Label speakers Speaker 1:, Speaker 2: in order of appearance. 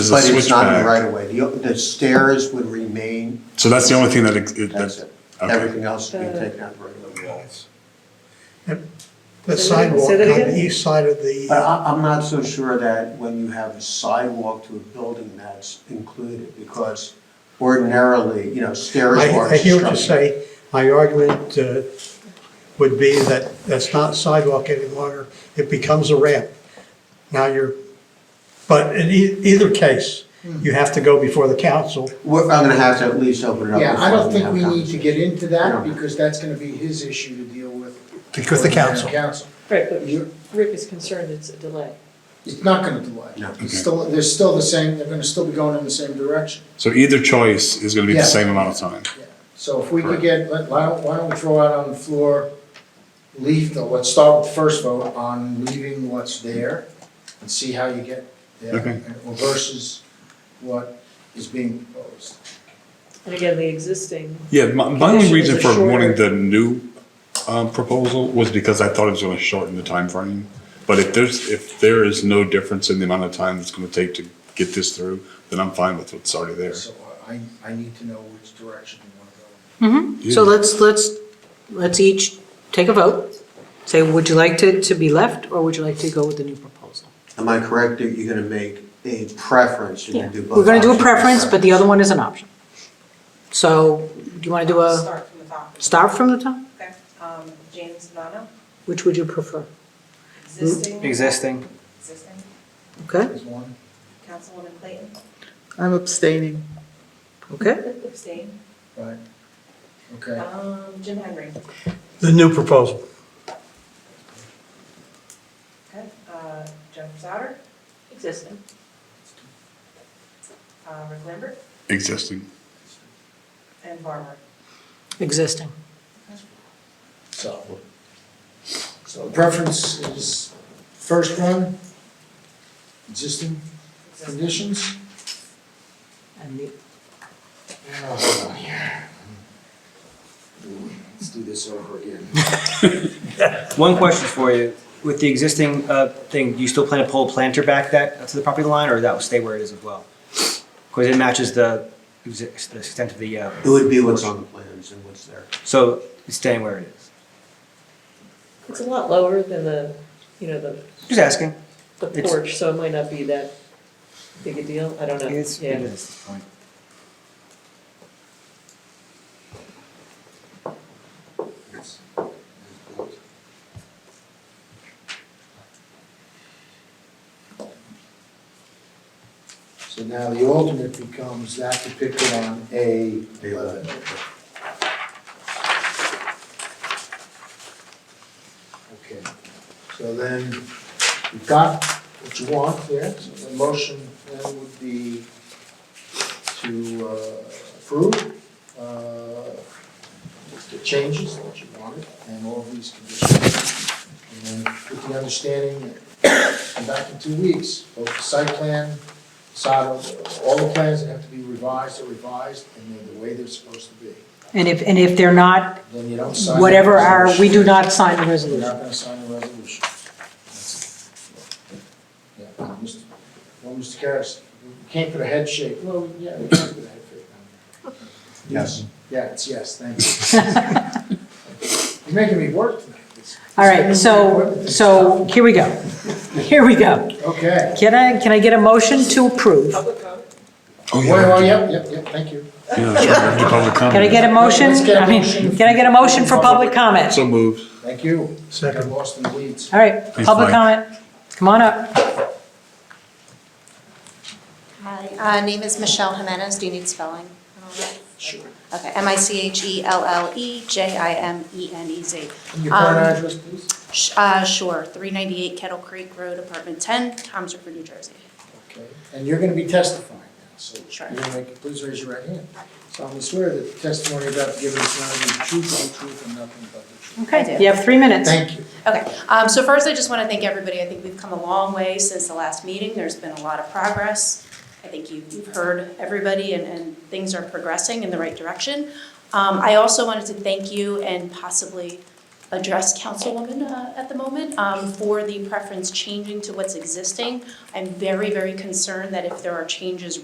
Speaker 1: There's a
Speaker 2: But it's not in the
Speaker 1: switchback.
Speaker 2: right of way. The, the stairs would remain,
Speaker 1: So that's the only thing that, it- it-
Speaker 2: that's
Speaker 1: that,
Speaker 2: it.
Speaker 1: okay.
Speaker 2: Everything else would be
Speaker 3: Uh,
Speaker 2: taken out of the right of way.
Speaker 4: The
Speaker 3: Say that-
Speaker 4: sidewalk
Speaker 3: say
Speaker 4: on
Speaker 3: that again?
Speaker 4: the east side of
Speaker 2: But
Speaker 4: the,
Speaker 2: I, I'm not so sure that when you have a sidewalk to a building that's included, because ordinarily, you know, stairs
Speaker 4: I,
Speaker 2: are.
Speaker 4: I hear what you
Speaker 2: structured.
Speaker 4: say. My argument uh, would be that that's not sidewalk any longer, it becomes a ramp. Now you're, but in e- either case, you have to go before the council.
Speaker 2: We're, I'm gonna have to at least open it up.
Speaker 5: Yeah, I
Speaker 2: before
Speaker 5: don't think
Speaker 2: have
Speaker 5: we need to get into that,
Speaker 2: Yeah.
Speaker 5: because that's gonna be his issue to deal with.
Speaker 4: Because the
Speaker 5: with mayor and
Speaker 4: council.
Speaker 5: Council.
Speaker 3: Right, but
Speaker 5: You're-
Speaker 3: Rick is concerned it's a delay.
Speaker 5: It's not gonna delay.
Speaker 2: No.
Speaker 5: It's Still, they're still the same, they're gonna still be going in the same direction.
Speaker 1: So either choice is gonna be the
Speaker 5: Yeah.
Speaker 1: same amount of time.
Speaker 5: So if we could get, let- why don't, why don't we throw out on the floor, leave the, let's start with the first vote on leaving what's there and see how you get there
Speaker 1: Okay.
Speaker 5: and- or versus what is being proposed.
Speaker 3: And again, the existing,
Speaker 1: Yeah, my, my only
Speaker 3: Conditions
Speaker 1: reason
Speaker 3: are
Speaker 1: for
Speaker 3: shorter.
Speaker 1: wanting the new, um, proposal was because I thought it was gonna shorten the time frame. But if there's, if there is no difference in the amount of time it's gonna take to get this through, then I'm fine with what's already there.
Speaker 5: So I, I need to know which direction you wanna go.
Speaker 6: So let's, let's, let's each take a vote. Say, would you like to, to be left or would you like to go with the new proposal?
Speaker 2: Am I correct that you're gonna make a preference? You're gonna do both
Speaker 6: We're gonna do a
Speaker 2: options?
Speaker 6: preference, but the other one is an option. So do you wanna do a,
Speaker 7: Start from the top.
Speaker 6: start from Hmm? the top?
Speaker 7: Okay, um, James Bonanno,
Speaker 6: Which would you prefer?
Speaker 7: existing,
Speaker 8: Existing.
Speaker 7: existing,
Speaker 6: Okay,
Speaker 5: There's one.
Speaker 7: Councilwoman Clayton,
Speaker 9: I'm abstaining.
Speaker 6: okay.
Speaker 7: abstain,
Speaker 5: Right, okay.
Speaker 7: um, Jim Henry,
Speaker 4: The new proposal.
Speaker 7: okay, uh, Jennifer Sauter,
Speaker 3: existing.
Speaker 7: uh, Rick Lambert,
Speaker 1: Existing.
Speaker 7: and Barbara.
Speaker 6: Existing.
Speaker 5: So, so preference is first one, existing
Speaker 7: Existing.
Speaker 5: conditions.
Speaker 6: And the
Speaker 5: Oh, Let's do this over again.
Speaker 8: One question for you. With the existing uh, thing, do you still plan to pull a planter back that, to the property line, or that will stay where it is as well? Because it matches the, exi- the extent of the, uh,
Speaker 2: It would be what's on the plans and what's there.
Speaker 8: so it's staying where it is.
Speaker 3: It's a lot lower than the, you know, the,
Speaker 8: Just asking.
Speaker 3: the
Speaker 8: It's-
Speaker 3: porch, so it might not be that big a deal, I don't know.
Speaker 8: It is,
Speaker 3: Yeah.
Speaker 8: it is. Fine.
Speaker 5: So now the alternate becomes that depicted on A eleven. Okay, so then you've got what you want there, so the motion then would be to uh, approve uh, the changes that you wanted and all these conditions. And then with the understanding that come back in two weeks, both the site plan side of, all the plans that have to be revised are revised, and they're the way they're supposed to be.
Speaker 6: And if, and if they're not,
Speaker 5: Then you don't sign. the
Speaker 6: whatever our, we
Speaker 5: resolution.
Speaker 6: do not sign the
Speaker 5: You're
Speaker 6: resolution.
Speaker 5: not gonna sign the resolution. That's it. Yeah, Mr. Well, Mr. Karas, you can't put a head shake, well, yeah, we can put a head shake on there.
Speaker 2: Yes.
Speaker 5: Yeah, it's yes, thank you. You're making me work tonight. It's-
Speaker 6: All right, so, so here we go. Here we go.
Speaker 5: Okay,
Speaker 6: Can I, can I get a motion to approve?
Speaker 7: Public vote.
Speaker 1: Oh,
Speaker 5: well, well,
Speaker 1: yeah.
Speaker 5: yep, yep, yep, thank you.
Speaker 1: Yeah, that's right, we have to public
Speaker 6: Can I
Speaker 1: comment.
Speaker 6: get a motion?
Speaker 5: Let's get a
Speaker 6: I mean,
Speaker 5: motion.
Speaker 6: Can I get a motion for public comment?
Speaker 1: So moved.
Speaker 5: Thank you. Got
Speaker 4: Second.
Speaker 5: lost in the weeds.
Speaker 6: All right,
Speaker 1: Please,
Speaker 6: public
Speaker 1: Mike.
Speaker 6: comment. Come on up.
Speaker 10: Hi, uh, name is Michelle Jimenez. Do you need spelling?
Speaker 5: Sure.
Speaker 10: Okay, E M-I-C-H-E-L-L-E-J-I-M-E-N-E-Z.
Speaker 5: And Your
Speaker 6: um,
Speaker 5: current address, please?
Speaker 10: E Sh- uh, Sure, 398 Kettle Creek Road, Apartment 10, Tom's River, New Jersey.
Speaker 5: Okay, and you're gonna be testifying now, so.
Speaker 10: Sure.
Speaker 5: You're gonna make, please raise your right hand. So I'm gonna swear that the testimony you're about to give is not the truth, the truth, and nothing but the truth.
Speaker 6: Okay, you have three minutes.
Speaker 5: Thank you.
Speaker 10: Okay, um, so first, I just want to thank everybody. I think we've come a long way since the last meeting. There's been a lot of progress. I think you- you've heard everybody, and, and things are progressing in the right direction. Um, I also wanted to thank you and possibly address Councilwoman uh, at the moment um, for the preference changing to what's existing. I'm very, very concerned that if there are changes